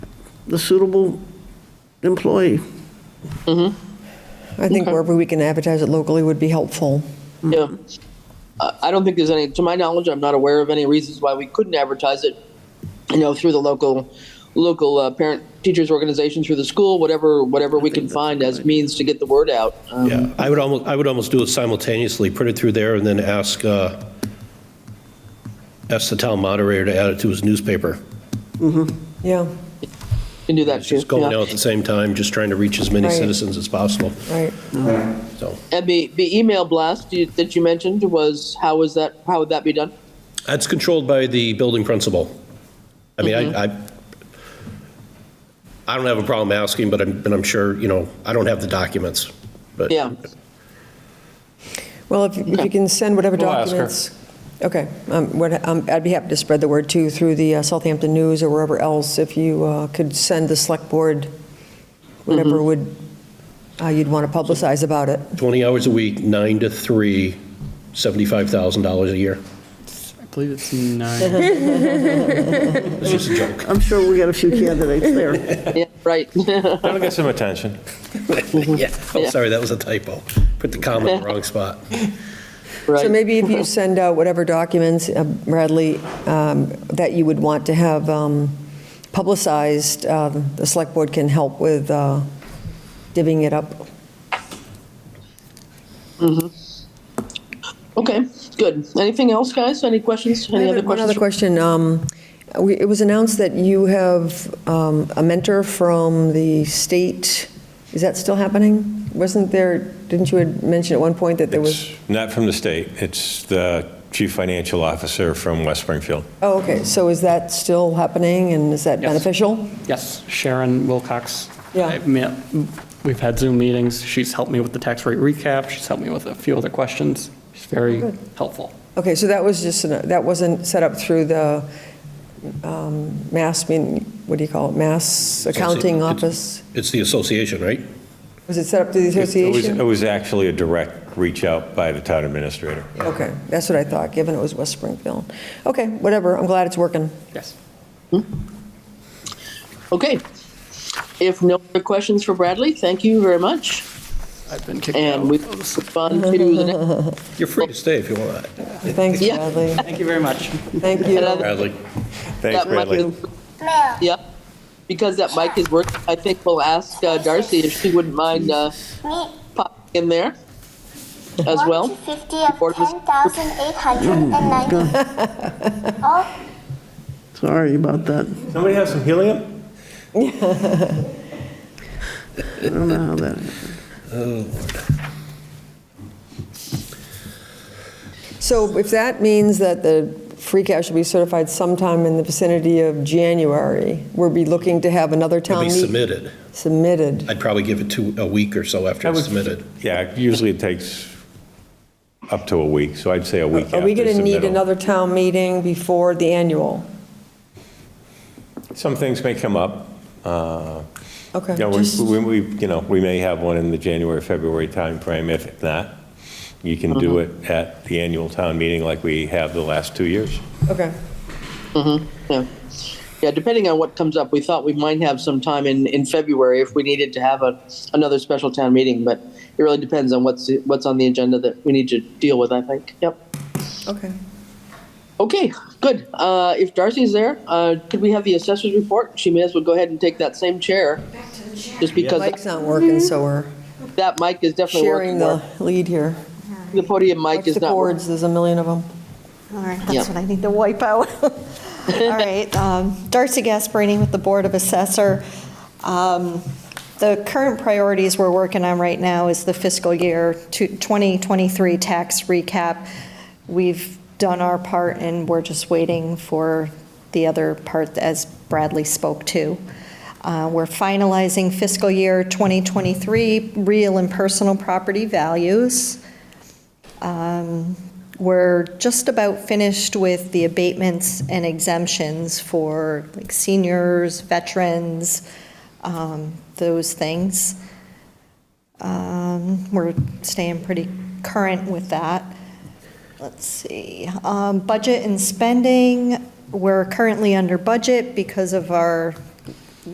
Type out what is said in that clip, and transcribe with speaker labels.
Speaker 1: the suitable employee.
Speaker 2: I think wherever we can advertise it locally would be helpful.
Speaker 3: Yeah. I I don't think there's any, to my knowledge, I'm not aware of any reasons why we couldn't advertise it, you know, through the local, local uh, parent teachers organization, through the school, whatever, whatever we can find as means to get the word out. Um,
Speaker 4: Yeah, I would almost, I would almost do it simultaneously, put it through there and then ask, uh, ask the town moderator to add it to his newspaper.
Speaker 2: Yeah,
Speaker 3: Can do that too.
Speaker 4: Just going
Speaker 3: yeah.
Speaker 4: out at the same time, just trying to reach as many
Speaker 2: Right.
Speaker 4: citizens as possible,
Speaker 2: right.
Speaker 4: so.
Speaker 3: And the, the email blast you- that you mentioned was, how was that, how would that be done?
Speaker 4: That's controlled by the building principal. I mean,
Speaker 3: Mm-hmm.
Speaker 4: I, I, I don't have a problem asking, but I'm, but I'm sure, you know, I don't have the documents, but.
Speaker 3: Yeah.
Speaker 2: Well, if if you can send whatever
Speaker 5: We'll ask her.
Speaker 2: documents. Okay, um, what- um, I'd be happy to spread the word too through the uh, Southampton News or wherever else. If you uh, could send the select board whatever would, uh, you'd want to publicize about it.
Speaker 4: 20 hours a week, nine to three, $75,000 a year.
Speaker 5: I believe it's nine.
Speaker 4: It's just a joke.
Speaker 1: I'm sure we got a few candidates there.
Speaker 3: Yeah, right.
Speaker 5: That'll get some attention.
Speaker 4: Oh, sorry, that was a typo. Put the comma in the wrong spot.
Speaker 2: So
Speaker 3: Right.
Speaker 2: maybe if you send out whatever documents, uh, Bradley, um, that you would want to have um, publicized, uh, the select board can help with uh, divvying it up.
Speaker 3: Okay, good. Anything else, guys? Any questions? Any other
Speaker 2: One other
Speaker 3: questions?
Speaker 2: question. um, we- It was announced that you have um, a mentor from the state. Is that still happening? Wasn't there, didn't you had mentioned at one point that there was?
Speaker 6: It's not from the state, it's the chief financial officer from West Springfield.
Speaker 2: Oh, okay. So is that still happening and is that
Speaker 5: Yes.
Speaker 2: beneficial?
Speaker 5: Yes, Sharon Wilcox.
Speaker 2: Yeah.
Speaker 5: I met- We've had Zoom meetings. She's helped me with the tax rate recap. She's helped me with a few other questions. She's very helpful.
Speaker 2: Okay, so that was just, an- that wasn't set up through the um, Mass, mean, what do you call it, Mass Accounting
Speaker 4: It's-
Speaker 2: Office?
Speaker 4: It's the association, right?
Speaker 2: Was it set up through the
Speaker 6: It was- It
Speaker 2: association?
Speaker 6: was actually a direct reach out by the town administrator.
Speaker 2: Okay, that's what I thought, given it was West Springfield. Okay, whatever, I'm glad it's working.
Speaker 5: Yes.
Speaker 3: Okay. If no other questions for Bradley, thank you very much.
Speaker 5: I've been kicked out.
Speaker 3: And we move on to the next
Speaker 4: You're free to stay if you want.
Speaker 2: Thanks,
Speaker 3: Yeah.
Speaker 2: Bradley.
Speaker 5: Thank you very much.
Speaker 2: Thank you.
Speaker 3: Another-
Speaker 4: Bradley.
Speaker 6: Thanks,
Speaker 3: that mic
Speaker 6: Bradley.
Speaker 3: is- Yeah, because that mic is working, I think we'll ask uh, Darcy if she wouldn't mind uh, popping in there as well.
Speaker 7: 50
Speaker 3: Board
Speaker 7: of
Speaker 3: was-
Speaker 7: 10,890. All
Speaker 3: Oh.
Speaker 1: Sorry about that.
Speaker 6: Somebody have some helium?
Speaker 1: I don't know how that,
Speaker 2: So if that means that the free cash will be certified sometime in the vicinity of January, we'll be looking to have another
Speaker 4: It'll
Speaker 2: town
Speaker 4: be
Speaker 2: meeting
Speaker 4: submitted.
Speaker 2: submitted.
Speaker 4: I'd probably give it two, a week or so after it's submitted.
Speaker 6: Yeah, usually it takes up to a week, so I'd say a week after
Speaker 2: Are we going to need
Speaker 6: submittal.
Speaker 2: another town meeting before the annual?
Speaker 6: Some things may come up. uh,
Speaker 2: Okay.
Speaker 6: You know, we-
Speaker 2: just-
Speaker 6: we, we- you know, we may have one in the January, February timeframe. If not, you can do it
Speaker 2: Mm-hmm.
Speaker 6: at the annual town meeting like we have the last two years.
Speaker 2: Okay,
Speaker 3: Yeah. Yeah, depending on what comes up, we thought we might have some time in, in February if we needed to have a, another special town meeting, but it really depends on what's, what's on the agenda that we need to deal with, I think. Yep.
Speaker 2: okay.
Speaker 3: Okay, good. Uh, if Darcy's there, uh, could we have the assessor's report? She may as well go ahead and take that same chair. Just
Speaker 2: Mike's
Speaker 3: because
Speaker 2: not working, so we're
Speaker 3: that mic is definitely
Speaker 2: sharing
Speaker 3: working.
Speaker 2: the
Speaker 3: more.
Speaker 2: lead here.
Speaker 3: The podium mic
Speaker 2: Watch
Speaker 3: is
Speaker 2: the
Speaker 3: not working.
Speaker 2: cords, there's a million of them.
Speaker 8: All right,
Speaker 3: Yeah.
Speaker 8: that's what I need to wipe out. All right, um, Darcy Gasparini with the Board of Assessor. Um, The current priorities we're working on right now is the fiscal year two- 2023 tax recap. We've done our part, and we're just waiting for the other part, as Bradley spoke to. Uh, We're finalizing fiscal year 2023 real and personal property values. We're just about finished with the abatements and exemptions for like seniors, veterans, um, those things. Um, We're staying pretty current with that. Let's see, um, budget and spending, we're currently under budget because of our